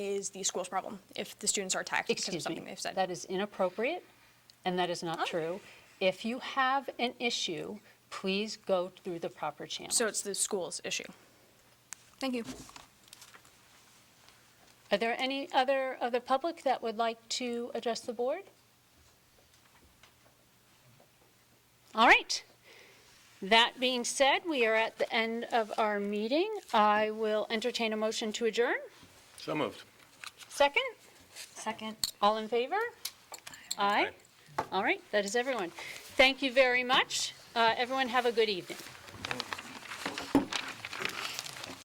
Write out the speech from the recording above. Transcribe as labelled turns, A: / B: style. A: is the school's problem if the students are attacked because of
B: Excuse
A: something
B: me,
A: they've said.
B: that is inappropriate, and that is
A: Oh.
B: not true. If you have an issue, please go through the proper channels.
A: So it's the school's issue. Thank you.
B: Are there any other, other public that would like to address the board? All right. That being said, we are at the end of our meeting. I will entertain a motion to adjourn.
C: So moved.
B: Second,
D: Second.
B: all in favor? Aye. All right, that is everyone. Thank you very much. Uh, Everyone have a good evening.